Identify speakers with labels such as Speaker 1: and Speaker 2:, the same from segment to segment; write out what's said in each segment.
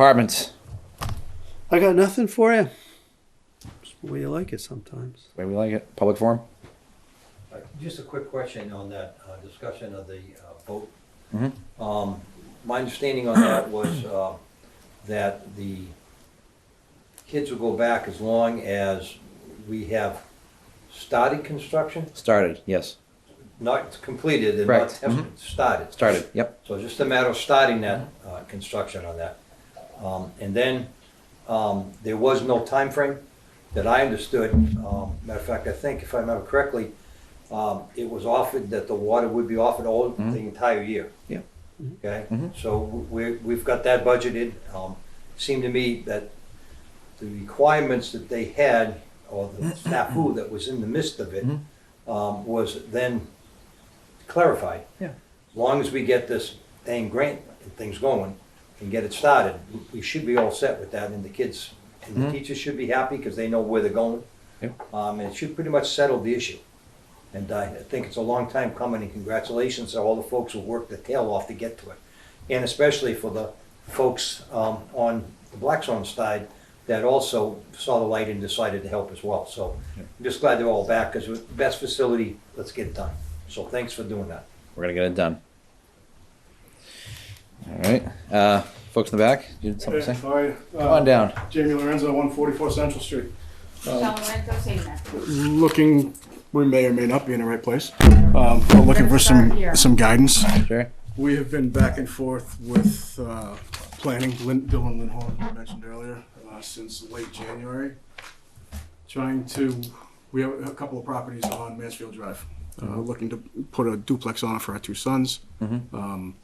Speaker 1: departments.
Speaker 2: I got nothing for you. It's the way you like it sometimes.
Speaker 1: The way we like it. Public forum.
Speaker 3: Uh, Just a quick question on that uh, discussion of the uh, vote.
Speaker 1: Mhm.
Speaker 3: Um, My understanding on that was uh, that the kids will go back as long as we have started construction,
Speaker 1: Started. Yes.
Speaker 3: not completed and not
Speaker 1: Correct.
Speaker 3: tested, started.
Speaker 1: Started. Yep.
Speaker 3: So just a matter of starting that uh, construction on that. Um, And then um, there was no time frame that I understood. Um, Matter of fact, I think if I remember correctly, um, it was offered that the water would be offered all, the entire year. Mm-hmm.
Speaker 1: Yeah.
Speaker 3: Okay,
Speaker 1: Mhm.
Speaker 3: so we, we've got that budgeted. Um, Seemed to me that the requirements that they had, or the snafu that was in the midst of it,
Speaker 1: Mhm.
Speaker 3: um, was then clarified.
Speaker 1: Yeah.
Speaker 3: As long as we get this dang grant and things going and get it started, we should be all set with that and the kids and the
Speaker 1: Mhm.
Speaker 3: teachers should be happy because they know where they're going.
Speaker 1: Yep.
Speaker 3: Um, and it should pretty much settle the issue. And I think it's a long time coming and congratulations to all the folks who worked their tail off to get to it. And especially for the folks, um, on the Blackstone side that also saw the light and decided to help as well. So
Speaker 1: Yep.
Speaker 3: I'm just glad they're all back because with the best facility, let's get it done. So thanks for doing that.
Speaker 1: We're gonna get it done. All right. Uh, folks in the back, you had something to
Speaker 4: Hey,
Speaker 1: say?
Speaker 4: how are you?
Speaker 1: Come on down.
Speaker 4: Uh, Jamie Lorenzo, 144 Central Street. Um,
Speaker 5: Tell them where to go say that.
Speaker 4: Looking, we may or may not be in the right place, um, but looking for
Speaker 5: Let's start
Speaker 4: some,
Speaker 5: here.
Speaker 4: some guidance.
Speaker 1: Sure.
Speaker 4: We have been back and forth with uh, planning, Lin- Dylan Lindholm, who you mentioned earlier, uh, since late January, trying to, we have a couple of properties on Mansfield Drive, uh, looking to put a duplex on it for our two sons.
Speaker 1: Mhm.
Speaker 4: Um,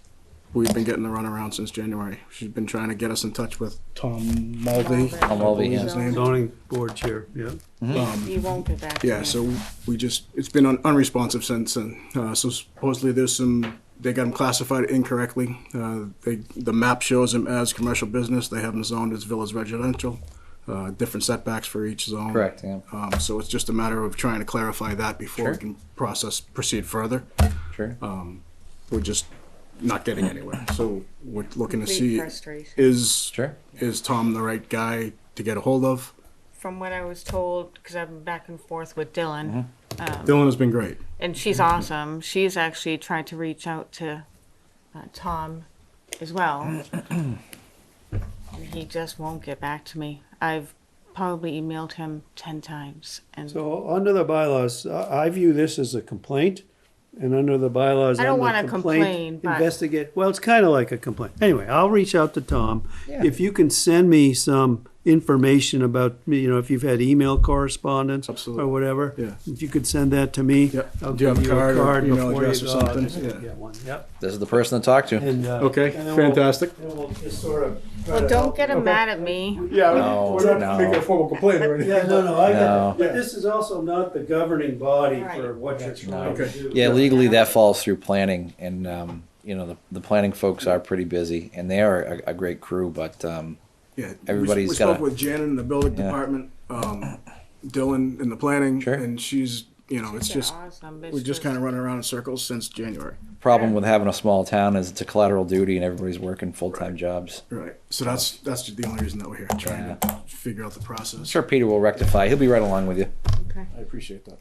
Speaker 4: We've been getting the runaround since January. She's been trying to get us in touch with Tom Mulvey.
Speaker 5: Mulvey.
Speaker 4: I
Speaker 1: Tom Mulvey,
Speaker 4: believe
Speaker 1: yeah.
Speaker 4: his name.
Speaker 2: Zoning board chair, yeah.
Speaker 1: Mm-hmm.
Speaker 4: Um,
Speaker 5: You won't get back. to
Speaker 4: Yeah,
Speaker 5: me.
Speaker 4: so we just, it's been un- unresponsive since, and uh, so supposedly there's some, they got them classified incorrectly. Uh, They, the map shows them as commercial business, they have them zoned as villas residential, uh, different setbacks for each zone.
Speaker 1: Correct. Yeah.
Speaker 4: Um, So it's just a matter of trying to clarify that before we
Speaker 1: Sure.
Speaker 4: can process, proceed further.
Speaker 1: Sure.
Speaker 4: Oh. We're just not getting anywhere, so we're looking to
Speaker 5: Complete
Speaker 4: see,
Speaker 5: frustration.
Speaker 4: is,
Speaker 1: Sure.
Speaker 4: is Tom the right guy to get a hold of?
Speaker 5: From what I was told, because I've been back and forth with Dylan,
Speaker 4: Dylan has been great.
Speaker 5: and she's
Speaker 4: Mm-hmm.
Speaker 5: awesome. She's actually tried to reach out to uh, Tom as well. And he just won't get back to me. I've probably emailed him 10 times. And
Speaker 4: uh,
Speaker 2: So under the bylaws, I I view this as a complaint, and under the bylaws,
Speaker 5: I don't
Speaker 2: I'm a
Speaker 5: wanna
Speaker 2: complaint
Speaker 5: complain, but-
Speaker 2: Investigate, well, it's kind of like a complaint. Anyway, I'll reach out to Tom.
Speaker 1: Yeah.
Speaker 2: If you can send me some information about, you know, if you've had email correspondence
Speaker 4: Absolutely.
Speaker 2: or whatever.
Speaker 4: Yeah.
Speaker 2: If you could send that to me.
Speaker 4: Yep.
Speaker 2: I'll
Speaker 4: Do you have
Speaker 2: give
Speaker 4: a card or email
Speaker 2: before you
Speaker 4: address or
Speaker 2: go. I'll
Speaker 4: something?
Speaker 2: just
Speaker 4: Yeah.
Speaker 2: get one, Yep.
Speaker 1: This is the person to talk to.
Speaker 2: And, uh,
Speaker 4: Okay,
Speaker 2: and then we'll-
Speaker 4: fantastic.
Speaker 2: Then we'll just sort of. try
Speaker 5: well,
Speaker 2: to
Speaker 5: don't
Speaker 2: help
Speaker 5: get him
Speaker 2: you.
Speaker 5: mad at me.
Speaker 4: Yeah,
Speaker 1: No,
Speaker 4: we're
Speaker 1: Oh, no.
Speaker 4: not making a formal complaint or anything.
Speaker 2: Yeah, no, no, I get
Speaker 1: No.
Speaker 2: that. But this is also not the governing body
Speaker 5: Right.
Speaker 2: for what you're trying to
Speaker 4: Okay.
Speaker 2: do.
Speaker 1: Yeah, legally that falls through planning, and um, you know the, the planning folks are pretty busy, and they are a, a great crew. But um,
Speaker 4: Yeah,
Speaker 1: Everybody's
Speaker 4: we, we
Speaker 1: gotta-
Speaker 4: spoke with Janet in the building
Speaker 1: Yeah.
Speaker 4: department, um, Dylan in the planning,
Speaker 1: Sure.
Speaker 4: and she's you know it's
Speaker 5: She's
Speaker 4: just
Speaker 5: awesome. but
Speaker 4: we're
Speaker 5: it's
Speaker 4: just kind of running around in circles since January.
Speaker 1: problem with having a small town is it's a collateral duty, and everybody's working full time jobs.
Speaker 4: Right. So that's that's just the only reason that we're here, trying to figure out the
Speaker 1: I'm
Speaker 4: process.
Speaker 1: sure Peter will rectify. He'll be right along with you.
Speaker 5: Okay.
Speaker 4: I appreciate that.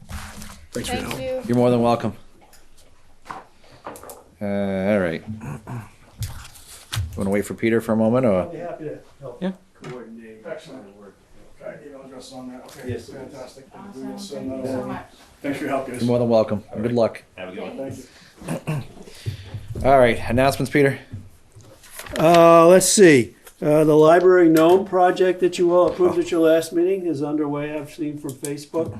Speaker 4: Thanks for your
Speaker 5: Thank
Speaker 4: help.
Speaker 5: you.
Speaker 1: You're more than welcome. Uh, all right. Want to wait for Peter for a moment,
Speaker 2: I'll
Speaker 1: or
Speaker 2: be happy to help
Speaker 1: Yeah.
Speaker 2: coordinate.
Speaker 4: Excellent. Email address on that. Okay.
Speaker 2: Yes, please.
Speaker 4: fantastic. We will
Speaker 5: Awesome.
Speaker 4: send
Speaker 5: Thank
Speaker 4: that
Speaker 5: you so
Speaker 4: over.
Speaker 5: much.
Speaker 4: Thanks for your help, guys.
Speaker 1: you're more than welcome. Good luck.
Speaker 4: Thank you.
Speaker 1: All right, announcements, Peter.
Speaker 2: Uh, let's see, uh, the library gnome project that you all approved at your last meeting is underway, I've seen from Facebook.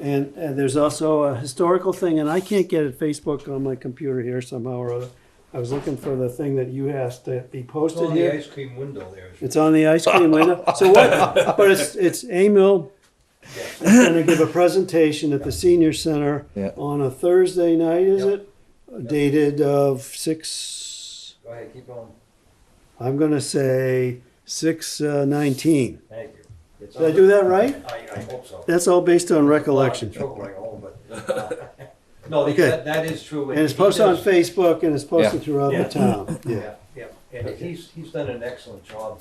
Speaker 2: And, and there's also a historical thing, and I can't get it Facebook on my computer here somehow or other. I was looking for the thing that you asked to be posted
Speaker 3: on the
Speaker 2: here.
Speaker 3: ice cream window there.
Speaker 2: It's on the ice cream window. So what? But it's it's Emil going to give a presentation at the senior center
Speaker 1: Yeah.
Speaker 2: on a Thursday night. Is
Speaker 3: Yep.
Speaker 2: it dated of six?
Speaker 3: Go ahead, keep on.
Speaker 2: I'm going to say six uh, nineteen.
Speaker 3: Thank you. It's
Speaker 2: Did I
Speaker 3: on-
Speaker 2: do that right?
Speaker 3: I, I hope so.
Speaker 2: That's all based on recollection.
Speaker 3: Choke like a hole, but, uh, No,
Speaker 2: Okay.
Speaker 3: that, that is true.
Speaker 2: And it's posted on
Speaker 3: He does-
Speaker 2: Facebook and it's posted
Speaker 1: Yeah.
Speaker 2: throughout the
Speaker 3: Yeah.
Speaker 2: town. Yeah. Oh,
Speaker 3: Yeah, yeah, and he's, he's done an excellent job.